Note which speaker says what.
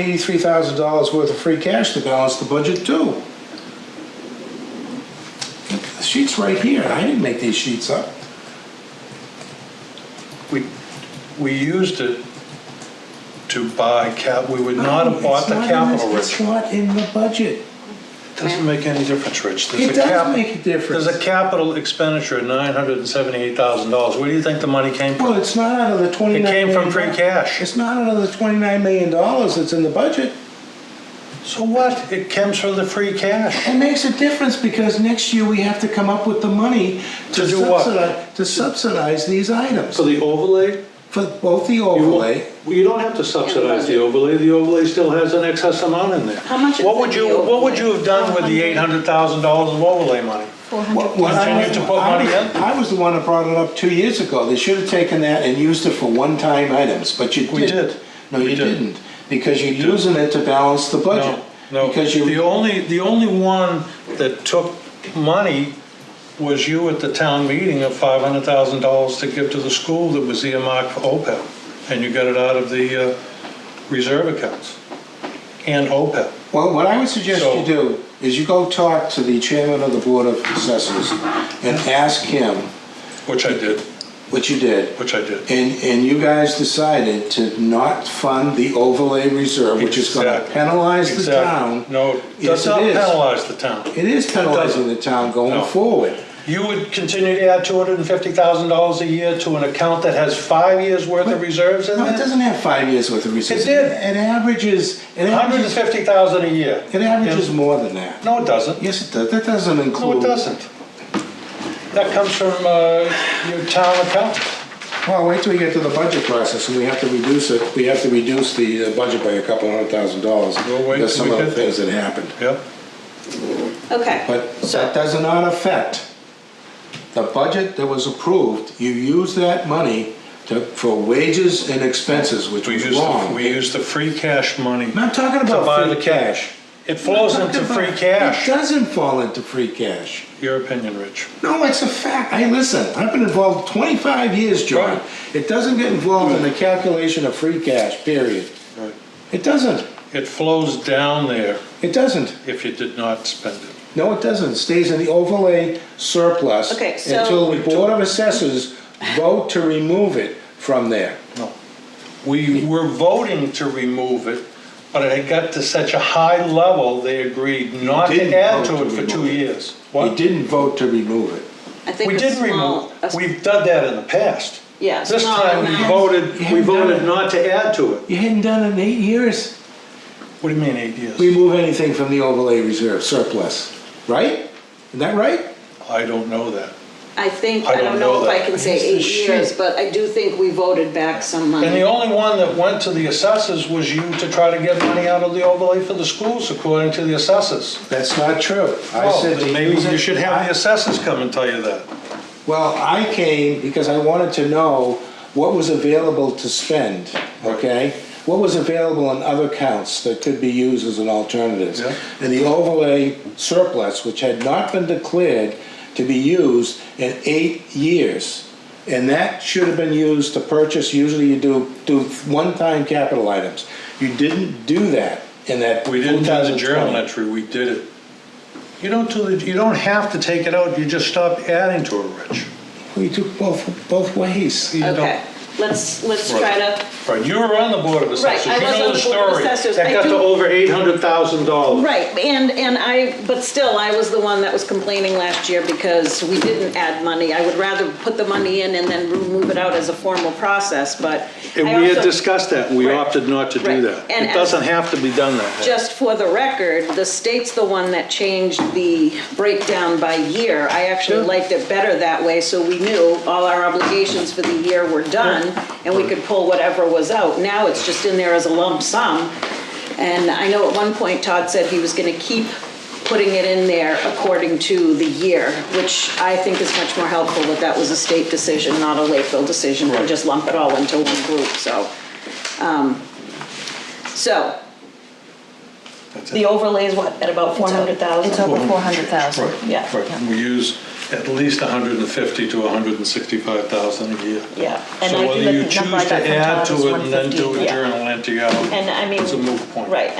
Speaker 1: Eighty-three thousand dollars worth of free cash to balance the budget too. The sheet's right here, I didn't make these sheets up.
Speaker 2: We, we used it to buy cap, we would not have bought the
Speaker 1: Oh, It's not in
Speaker 2: capital,
Speaker 1: It's
Speaker 2: Rich.
Speaker 1: not in the budget.
Speaker 2: Doesn't make any difference, Rich. There's
Speaker 1: It
Speaker 2: a
Speaker 1: does
Speaker 2: cap-
Speaker 1: make a difference.
Speaker 2: There's a capital expenditure of nine hundred and seventy-eight thousand dollars. Where do you think the money came
Speaker 1: Well,
Speaker 2: from?
Speaker 1: it's not out of the
Speaker 2: It
Speaker 1: twenty-nine.
Speaker 2: came from free
Speaker 1: million
Speaker 2: cash.
Speaker 1: It's not out of the twenty-nine million dollars that's in the budget.
Speaker 2: So what? It comes from the free cash.
Speaker 1: It makes a difference because next year we have to come up with the money to
Speaker 2: To do what?
Speaker 1: subsidize, to subsidize these items.
Speaker 3: So the overlay?
Speaker 1: For both the
Speaker 3: you won't-
Speaker 1: overlay,
Speaker 3: Well, you don't have to subsidize the overlay, the overlay still has an excess amount in there.
Speaker 4: How much is
Speaker 2: What would
Speaker 4: in the
Speaker 2: you, what would you have done with the
Speaker 4: overlay?
Speaker 2: eight hundred thousand dollars of overlay money?
Speaker 1: What- what I
Speaker 2: Continue to put money in?
Speaker 1: I was the one that brought it up two years ago. They should have taken that and used it for one-time items, but you didn't.
Speaker 2: We did.
Speaker 1: No,
Speaker 2: We
Speaker 1: you
Speaker 2: did.
Speaker 1: didn't, because you're using it to balance the budget.
Speaker 2: No, no.
Speaker 1: Because you,
Speaker 2: The only, the only one that took money was you at the town meeting of five hundred thousand dollars to give to the school that was earmarked for OPEB. And you got it out of the uh, reserve accounts and E OPEB.
Speaker 1: well, what I would suggest
Speaker 2: So-
Speaker 1: you do is you go talk to the chairman of the Board of Assessors and ask him
Speaker 2: Which I did,
Speaker 1: what you did.
Speaker 2: which I did.
Speaker 1: And, and you guys decided to not fund the overlay reserve, which is gonna
Speaker 2: Exactly.
Speaker 1: penalize the
Speaker 2: Exactly.
Speaker 1: town.
Speaker 2: No, it
Speaker 1: Yes,
Speaker 2: does
Speaker 1: it
Speaker 2: not
Speaker 1: is.
Speaker 2: penalize the town.
Speaker 1: It is penalizing the town
Speaker 2: No.
Speaker 1: going forward.
Speaker 2: You would continue to add two hundred and fifty thousand dollars a year to an account that has five years' worth of reserves in
Speaker 1: No, it
Speaker 2: there?
Speaker 1: doesn't have five years worth of research.
Speaker 2: It did.
Speaker 1: It averages, it
Speaker 2: Hundred and
Speaker 1: averages,
Speaker 2: fifty thousand a year.
Speaker 1: it averages more than that.
Speaker 2: No, it doesn't.
Speaker 1: Yes, it does. That doesn't
Speaker 2: No,
Speaker 1: include.
Speaker 2: it doesn't. That comes from uh, your town accountant.
Speaker 1: Well, wait till we get to the budget process and we have to reduce it, we have to reduce the uh, budget by a couple hundred thousand dollars.
Speaker 2: We'll wait
Speaker 1: There's
Speaker 2: till
Speaker 1: some
Speaker 2: we
Speaker 1: other
Speaker 2: get there.
Speaker 1: things that happened.
Speaker 2: Yep.
Speaker 4: Okay,
Speaker 1: But that
Speaker 4: so,
Speaker 1: does not affect the budget that was approved. You use that money to, for wages and expenses, which
Speaker 2: We
Speaker 1: was
Speaker 2: use, the-
Speaker 1: wrong.
Speaker 2: we use the free cash money.
Speaker 1: I'm not talking
Speaker 2: to buy
Speaker 1: about
Speaker 2: the
Speaker 1: free cash.
Speaker 2: It flows into free
Speaker 1: It
Speaker 2: cash.
Speaker 1: doesn't fall into free cash.
Speaker 2: Your opinion, Rich.
Speaker 1: No, it's a fact. Hey, listen, I've been involved 25 years, John.
Speaker 2: Right.
Speaker 1: It doesn't get involved in the calculation of free cash, period.
Speaker 2: Right.
Speaker 1: It doesn't.
Speaker 2: It flows down there
Speaker 1: It doesn't.
Speaker 2: if you did not spend it.
Speaker 1: No, it doesn't. It stays in the overlay surplus
Speaker 4: Okay, so-
Speaker 1: until the Board of Assessors vote to remove it from there.
Speaker 2: No. We were voting to remove it, but it had got to such a high level, they agreed not
Speaker 1: Didn't
Speaker 2: to add
Speaker 1: vote
Speaker 2: to it
Speaker 1: to
Speaker 2: for two
Speaker 1: remove it.
Speaker 2: years.
Speaker 1: They
Speaker 2: What?
Speaker 1: didn't vote to remove it.
Speaker 4: I think
Speaker 2: We
Speaker 4: a
Speaker 2: did
Speaker 4: small,
Speaker 2: remove,
Speaker 4: a s-
Speaker 2: we've done that in the past.
Speaker 4: yeah, a
Speaker 2: This
Speaker 4: small
Speaker 2: time, we
Speaker 4: amount.
Speaker 2: voted, we
Speaker 1: haven't done
Speaker 2: voted
Speaker 1: it.
Speaker 2: not to add to it.
Speaker 1: You hadn't done it in eight years.
Speaker 2: What do you mean eight years?
Speaker 1: Remove anything from the overlay reserve surplus, right? Isn't that right?
Speaker 2: I don't know that.
Speaker 4: I think, I don't know if
Speaker 2: that.
Speaker 4: I can say
Speaker 1: It's the
Speaker 4: eight
Speaker 1: shit.
Speaker 4: years, but I do think we voted back some
Speaker 2: And the
Speaker 4: money.
Speaker 2: only one that went to the assessors was you to try to get money out of the overlay for the schools, according to the assessors.
Speaker 1: That's not true. I
Speaker 2: Well,
Speaker 1: said
Speaker 2: then
Speaker 1: to
Speaker 2: Oh, Maybe
Speaker 1: use
Speaker 2: you
Speaker 1: it-
Speaker 2: should have the assessors come and tell you that.
Speaker 1: Well, I came because I wanted to know what was available to spend, okay? What was available in other accounts that could be used as an alternative?
Speaker 2: Yeah.
Speaker 1: And the overlay surplus, which had not been declared to be used in eight years. And that should have been used to purchase, usually you do, do one-time capital items. You didn't do that in that.
Speaker 2: We didn't do the
Speaker 1: 2020.
Speaker 2: journal entry, we did it. You don't do the, you don't have to take it out, you just stop adding to it, Rich.
Speaker 1: We took both, both ways.
Speaker 2: You don't-
Speaker 4: Okay, let's, let's
Speaker 2: Right.
Speaker 4: try to,
Speaker 2: Right, you were on the board of assessors,
Speaker 4: I
Speaker 2: you
Speaker 4: was on
Speaker 2: know the
Speaker 4: the Board of
Speaker 2: story.
Speaker 4: Assessors.
Speaker 2: That
Speaker 4: I
Speaker 2: got
Speaker 4: do-
Speaker 2: to over eight hundred thousand dollars.
Speaker 4: right, and, and I, but still, I was the one that was complaining last year because we didn't add money. I would rather put the money in and then remove it out as a formal process, but
Speaker 2: And
Speaker 4: I
Speaker 2: we had
Speaker 4: also-
Speaker 2: discussed that, we
Speaker 4: Right.
Speaker 2: opted not to do
Speaker 4: Right.
Speaker 2: that.
Speaker 4: And
Speaker 2: It
Speaker 4: as-
Speaker 2: doesn't have to be done that way.
Speaker 4: Just for the record, the state's the one that changed the breakdown by year. I actually liked it better that way, so we knew all our obligations for the year were done, and we could pull whatever was out. Now it's just in there as a lump sum. And I know at one point Todd said he was gonna keep putting it in there according to the year, which I think is much more helpful that that was a state decision, not a Lakeville decision, to just lump it all into one group, so. um, So, the overlay is what, at about four hundred thousand?
Speaker 5: It's over four hundred thousand.
Speaker 2: Right,
Speaker 4: Yeah.
Speaker 2: right. We use at least 150 to 165,000 a year.
Speaker 5: Yeah, and I
Speaker 2: So
Speaker 5: do
Speaker 2: whether
Speaker 5: the
Speaker 2: you
Speaker 5: number
Speaker 2: choose
Speaker 5: I got
Speaker 2: to
Speaker 5: from
Speaker 2: add
Speaker 5: Tom is
Speaker 2: to it and then do
Speaker 5: 150,
Speaker 2: a
Speaker 5: yeah.
Speaker 2: journal entry out,
Speaker 5: And I mean,
Speaker 2: it's a moot point.
Speaker 5: right,